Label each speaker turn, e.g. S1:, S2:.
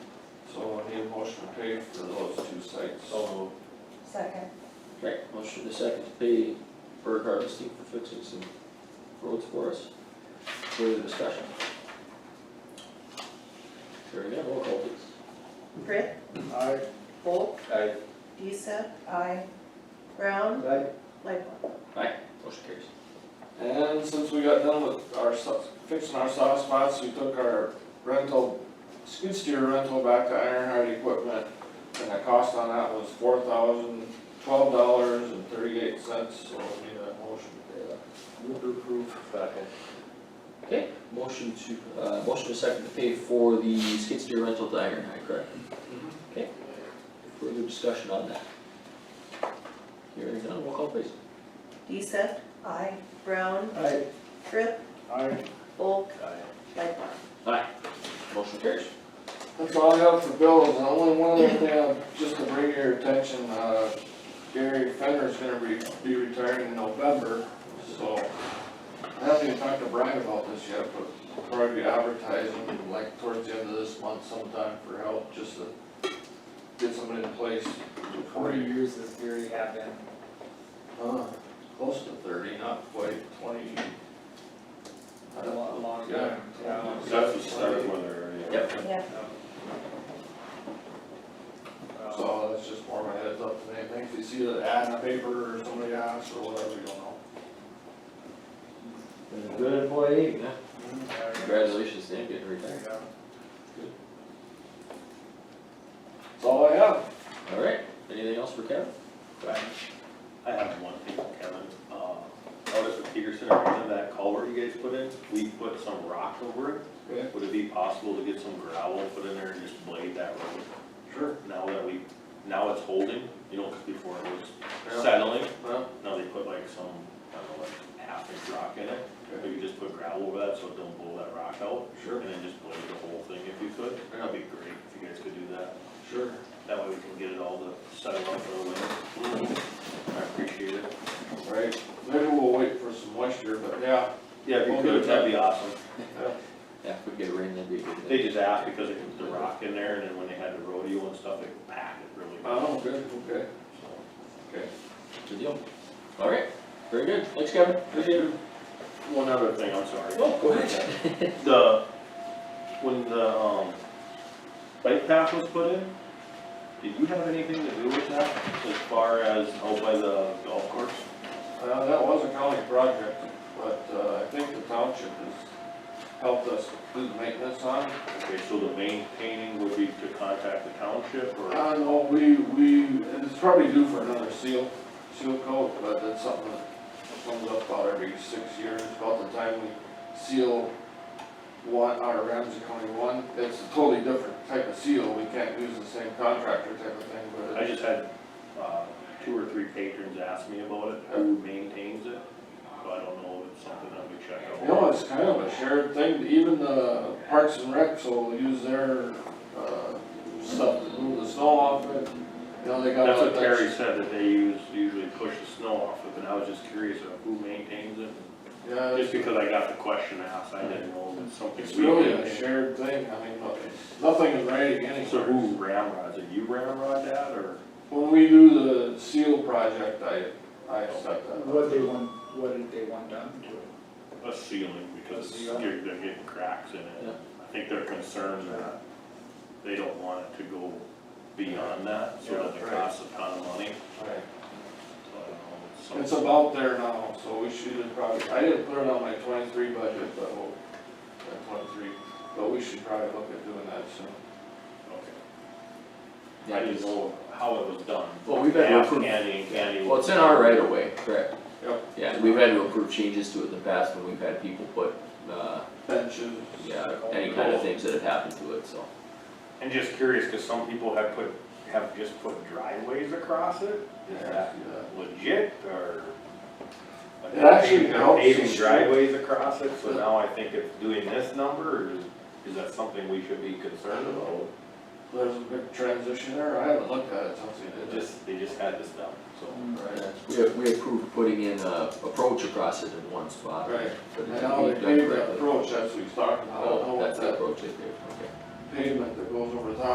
S1: pay for those two sites.
S2: So
S3: Second.
S4: Okay, motion to second to pay Berg Harvesting for fixing some roads for us. Further discussion? Hearing none, roll call please.
S5: Britt,
S2: moved. Aye.
S5: Volk,
S1: I,
S5: Deesa,
S3: Aye.
S5: Brown,
S2: Aye.
S5: Lightfoot.
S4: Motion carries.
S1: and since we got done with our, so- fixing our soft spots, we took our rental, skid steer rental back to Ironheart Equipment. And the cost on that was four thousand twelve dollars and thirty-eight cents, so we need a motion to pay that.
S2: Move to approve. Second.
S4: Okay, motion to, uh, motion to second to pay for the skid steer rental to Ironhide, correct? Okay, further discussion on that? Hearing none, roll call please.
S5: Deesa,
S3: Aye.
S5: Brown,
S2: Aye.
S5: Britt,
S2: Aye.
S5: Volk,
S2: Aye.
S5: Lightfoot.
S4: Aye. Motion carries.
S1: That's all I got for bills, and only one other thing, uh, just to bring your attention, uh, Gary Fenner's gonna be, be retiring in November, so. I haven't even talked to Brian about this yet, but probably be advertising, like, towards the end of this month sometime for help, just to get somebody in place
S2: How
S1: before
S2: many
S1: you,
S2: years has Gary had been?
S1: uh, close to thirty, not quite twenty. I
S2: A
S1: don't
S2: long, long
S1: Yeah.
S2: time. Yeah.
S6: That's the start weather area.
S4: Yep.
S3: Yeah.
S2: Uh,
S1: So that's just more of a heads up than anything, if you see the ad in the paper or somebody asks or whatever, you don't know.
S4: Been a good employee. Yeah.
S2: yeah,
S4: Congratulations, Dan, getting
S2: There
S4: retired.
S2: you go.
S1: That's all I have.
S4: All right, anything else for Kevin?
S6: I have one thing, Kevin, uh, notice with Peterson, I remember that culvert you guys put in, we put some rock over it.
S1: Okay.
S6: Would it be possible to get some gravel put in there and just blade that road?
S1: Sure.
S6: Now that we, now it's holding, you know, 'cause before it
S1: Yeah.
S6: was settling,
S1: Well,
S6: now they put like some, I don't know, like half inch rock in it.
S1: Okay.
S6: Maybe just put gravel over that so it don't blow that rock out,
S1: sure,
S6: and then just blade the whole thing if you could.
S1: Yeah.
S6: That'd be great if you guys could do that.
S1: sure.
S6: That way we can get it all to settle up for the winter. I appreciate it.
S1: Right, maybe we'll wait for some moisture, but yeah,
S6: Yeah, if you
S1: We'll do
S6: could, uh,
S1: it.
S6: that'd be awesome.
S4: Yeah, if we get rain, that'd be a good.
S6: They
S4: thing.
S6: just asked because it was the rock in there, and then when they had the rodeo and stuff, it packed it really well.
S1: oh, good, okay,
S6: so.
S1: okay.
S4: Good deal. All right, very good. Thanks, Kevin. Appreciate it.
S6: One other thing, I'm sorry.
S4: Oh, go ahead.
S6: The, when the, um, bike path was put in, did you have anything to do with that as far as out by the golf course?
S1: Uh, that was a county project, but, uh, I think the township has helped us do the maintenance on. it.
S6: Okay, so the maintaining would be to contact the township or?
S1: I don't know, we, we, it's probably due for another seal, seal coat, but that's something that comes up about every six years, about the time we seal one, our Ramsey County one, it's a totally different type of seal, we can't use the same contractor type of thing, but
S6: I
S1: it's
S6: just had, uh, two or three patrons ask me about it, who maintains it, so I don't know if it's something that we check out.
S1: You know, it's kind of a shared thing, even the Parks and Recs will use their, uh, stuff to move the snow off it. You know, they got.
S6: That's what
S1: that-
S6: Terry said, that they use, usually push the snow off of, and I was just curious of who maintains it.
S1: Yeah,
S6: Just
S1: it's,
S6: because I got the question asked, I didn't know if it's something.
S1: it's
S6: we
S1: really a
S6: maintain.
S1: shared thing, I mean, no- nothing is writing anywhere.
S6: So who ramrods it? You ramrod that, or?
S1: When we do the seal project, I, I accept that.
S2: What they want, what did they want done to it?
S6: A ceiling, because
S2: A ceiling.
S6: you're, they're getting cracks in
S4: Yeah.
S6: it. I think they're concerned that they don't want it to go beyond that, so
S1: Yeah,
S6: that it
S1: right.
S6: costs a ton of money.
S1: Right.
S6: So I don't know, it's something-
S1: It's about there now, so we should probably, I didn't put it on my twenty-three budget, but we'll, that twenty-three, but we should probably look at doing that soon.
S6: Okay.
S4: Yeah,
S6: I didn't
S4: 'cause-
S6: know how it was done.
S4: Well, we've had to
S6: Ask
S4: approve-
S6: Andy, Andy.
S4: Well, it's in our right of way, correct?
S1: Yep.
S4: Yeah, we've had to approve changes to it in the past when we've had people put, uh,
S1: Benches.
S4: yeah, any kind of things that have happened to it, so.
S6: And just curious, cause some people have put, have just put driveways across it,
S1: Yeah,
S6: is
S1: I
S6: that
S1: see that.
S6: legit, or?
S1: It actually
S6: They're
S1: helps the
S6: Paving
S1: street.
S6: driveways across it, so now I think it's doing this number, or is, is that something we should be concerned about?
S1: There's a big transition there, I haven't looked at it since we
S6: It
S1: did it.
S6: just, they just had this done, so.
S1: Right,
S4: We, we approved putting in a approach across it in one spot.
S1: right,
S4: But
S1: and
S4: it's
S1: now they
S4: being done
S1: paved that
S4: correctly.
S1: approach, that's what he's talking about, I don't know
S4: Oh,
S1: what
S4: that's the
S1: that
S4: approach they paved, okay.
S1: pavement that goes over top